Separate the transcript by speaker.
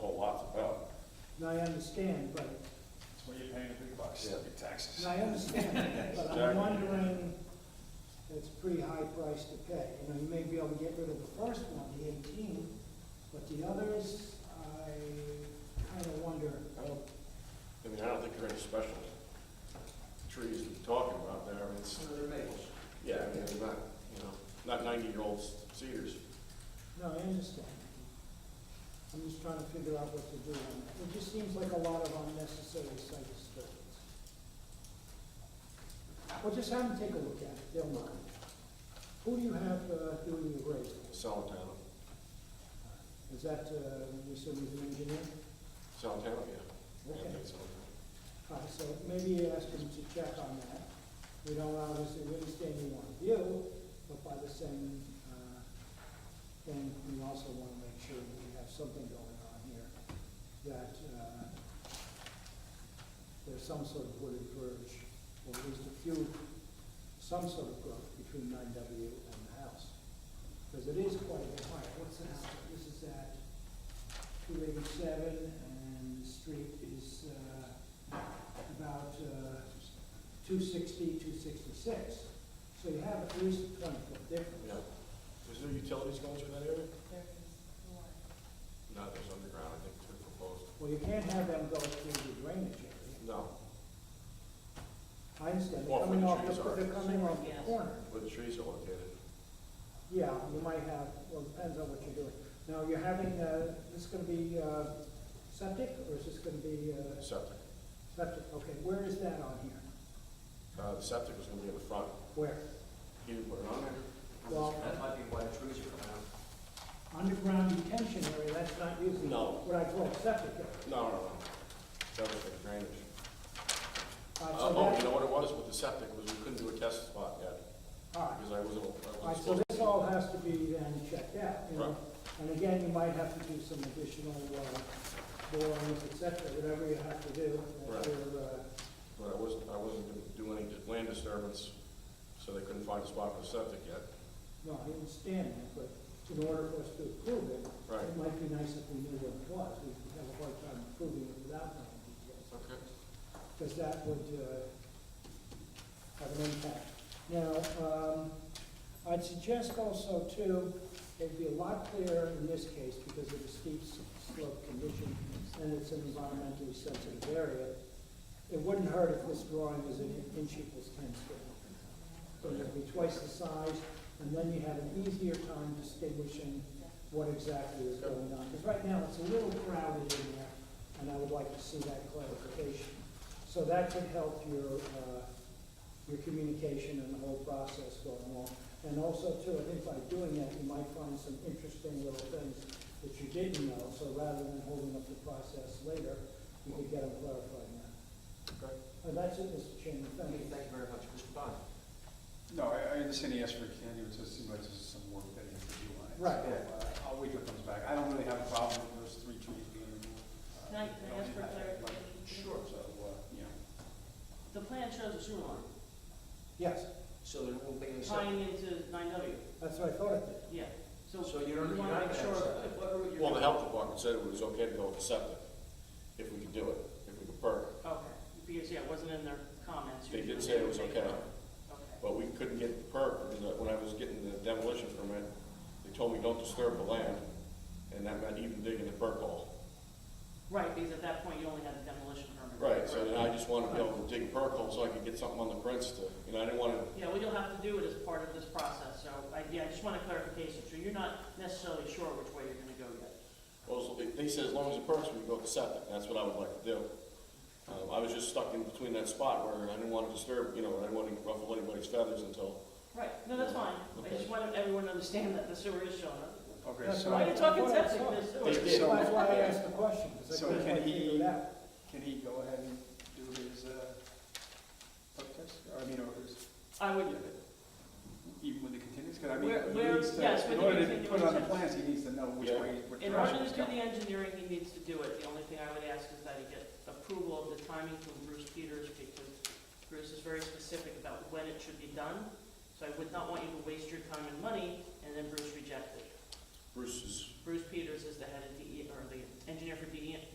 Speaker 1: And I understand, but,
Speaker 2: That's why you're paying the big bucks,
Speaker 3: Yeah.
Speaker 2: big taxes.
Speaker 1: and I understand, but I'm wondering, it's a pretty high price to pay. You know, you may be able to get rid of the first one, the eighteen, but the others, I kind of wonder.
Speaker 3: I don't, I mean, I don't think there are any special trees we're talking about there, I mean, it's,
Speaker 4: Some of their maples.
Speaker 3: yeah, I mean, they're not, you know, not ninety-year-old cedars.
Speaker 1: No, I understand. I'm just trying to figure out what to do on that. It just seems like a lot of unnecessary site disturbance. Well, just have them take a look at it, they'll mind. Who do you have uh, doing the grading?
Speaker 3: Solitano,
Speaker 1: Is that, uh, you said he's an engineer?
Speaker 3: Solitano, yeah. Yeah, I
Speaker 1: Okay.
Speaker 3: think so.
Speaker 1: All right, so maybe ask him to check on that. We don't obviously, we understand you want to view, but by the same, uh, thing, we also want to make sure that we have something going on here, that, uh, there's some sort of wooded verge, or at least a few, some sort of growth between nine W and the house. Because it is quite a bit higher. What's the house? This is at two eighty-seven, and the street is, uh, about uh, 260, 266. So you have at least a 20-foot difference.
Speaker 3: Yeah. Is there utilities going through that area? No, there's underground, I think, two proposed.
Speaker 1: Well, you can't have them go through the drainage area.
Speaker 3: No,
Speaker 1: I understand, they're
Speaker 3: Well,
Speaker 1: coming
Speaker 3: where
Speaker 1: off,
Speaker 3: the trees
Speaker 1: the-
Speaker 3: are.
Speaker 1: they're coming off the
Speaker 4: Yes.
Speaker 1: corner.
Speaker 3: where the trees are located.
Speaker 1: Yeah, you might have, well, depends on what you're doing. Now, you're having, uh, this going to be uh, septic, or is this going to be uh,
Speaker 3: Septic,
Speaker 1: septic? Okay, where is that on here?
Speaker 3: uh, the septic is gonna be in the front,
Speaker 1: Where?
Speaker 3: either put it on there,
Speaker 1: Well-
Speaker 4: That might be why the trees are coming out.
Speaker 1: Underground detention area, that's not usually
Speaker 3: No.
Speaker 1: what I call septic. area.
Speaker 3: no, no, no, that was for drainage.
Speaker 1: Uh,
Speaker 3: Uh,
Speaker 1: so
Speaker 3: oh,
Speaker 1: that-
Speaker 3: you know what it was with the septic, was we couldn't do a test spot yet,
Speaker 1: All right,
Speaker 3: because I wasn't, I
Speaker 1: All
Speaker 3: wasn't
Speaker 1: right, so
Speaker 3: supposed
Speaker 1: this all has to be then checked out, you know?
Speaker 3: Right.
Speaker 1: And again, you might have to do some additional, uh, borings, et cetera, whatever you have to do. that
Speaker 3: Right.
Speaker 1: you're, uh,
Speaker 3: But I wasn't, I wasn't gonna do any land disturbance, so they couldn't find a spot for the septic yet.
Speaker 1: No, I understand that, but in order for us to approve it,
Speaker 3: Right.
Speaker 1: it might be nice if we knew what it was. We could have a hard time approving it without knowing details,
Speaker 3: Okay.
Speaker 1: because that would, uh, have an impact. Now, um, I'd suggest also too, it'd be a lot clearer in this case because of the steep s- slope condition and it's an environmentally sensitive area. It wouldn't hurt if this drawing was an inch equals ten scale. So it'd be twice the size and then you have an easier time distinguishing what exactly is going on. Because right now it's a little crowded in there and I would like to see that clarification. So that could help your, uh, your communication and the whole process going on. And also too, I think by doing that, you might find some interesting little things that you didn't know, so rather than holding up the process later, you could get them clarified now.
Speaker 3: Okay.
Speaker 1: And that's it, Mr. Chairman, thank
Speaker 4: Thank you
Speaker 1: you.
Speaker 4: very much, Mr. Bond.
Speaker 2: No, I, I understand he asked for a candidate, it just seems like there's some work that he has to do on it.
Speaker 1: Right.
Speaker 2: So, uh, I'll wait till it comes back. I don't really have a problem with those three trees being removed. Uh,
Speaker 5: Can I- can I
Speaker 2: they don't
Speaker 5: ask for
Speaker 2: impact that much.
Speaker 5: clarification?
Speaker 2: Sure, so, uh, you know,
Speaker 5: The plan shows a sewer line
Speaker 1: Yes,
Speaker 4: So there won't be any, sep-
Speaker 5: tying into nine W,
Speaker 1: that's what I thought it did.
Speaker 5: yeah. So
Speaker 4: so you don't,
Speaker 5: you
Speaker 4: you're
Speaker 5: wanna
Speaker 4: not
Speaker 5: make
Speaker 4: gonna have
Speaker 5: sure,
Speaker 4: septic.
Speaker 5: what route you're.
Speaker 3: Well, the
Speaker 5: going.
Speaker 3: health department said it was okay to go with the septic, if we could do it, if we could perk.
Speaker 5: Okay, because, yeah, it wasn't in their comments.
Speaker 3: They did say it was okay,
Speaker 5: Okay,
Speaker 3: but we couldn't get the perk, because when I was getting the demolition permit, they told me don't disturb the land, and that meant even digging the perk hole.
Speaker 5: right, because at that point, you only had a demolition permit.
Speaker 3: Right, so then I just wanted to be able to dig a perk hole so I could get something on the prints to, you know, I didn't wanna,
Speaker 5: Yeah, well, you'll have to do it as part of this process, so, I, yeah, I just want a clarification, so you're not necessarily sure which way you're gonna go yet.
Speaker 3: well, they- they said as long as it perks, we can go with the septic, that's what I would like to do. Um, I was just stuck in between that spot where I didn't wanna disturb, you know, I didn't wanna ruffle anybody's feathers until
Speaker 5: Right, no, that's fine, I just want everyone to understand that the sewer is showing up.
Speaker 2: okay,
Speaker 1: That's
Speaker 2: so,
Speaker 1: right.
Speaker 5: Why are you talking
Speaker 1: Well,
Speaker 5: septic,
Speaker 1: so-
Speaker 5: there's
Speaker 3: They
Speaker 5: sewer?
Speaker 3: did.
Speaker 1: So that's why I asked the question, because I
Speaker 2: So
Speaker 1: couldn't
Speaker 2: can
Speaker 1: quite
Speaker 2: he-
Speaker 1: figure it out.
Speaker 2: can he go ahead and do his, uh, perk test? Or, I mean, or his,
Speaker 5: I would do it.
Speaker 2: even with the continuance, because I mean,
Speaker 5: Where-
Speaker 2: he
Speaker 5: where-
Speaker 2: needs
Speaker 5: yes,
Speaker 2: to,
Speaker 5: with
Speaker 2: in
Speaker 5: the
Speaker 2: order to put it on the
Speaker 5: continuance.
Speaker 2: plans, he needs to know which
Speaker 3: Yeah.
Speaker 2: way, which
Speaker 5: In order
Speaker 2: direction
Speaker 5: to
Speaker 2: it's
Speaker 5: do
Speaker 2: going.
Speaker 5: the engineering, he needs to do it. The only thing I would ask is that he get approval of the timing from Bruce Peters, because Bruce is very specific about when it should be done. So I would not want you to waste your time and money, and then Bruce reject it.
Speaker 3: Bruce's
Speaker 5: Bruce Peters is the head of DE, E, or the engineer for E, DEP,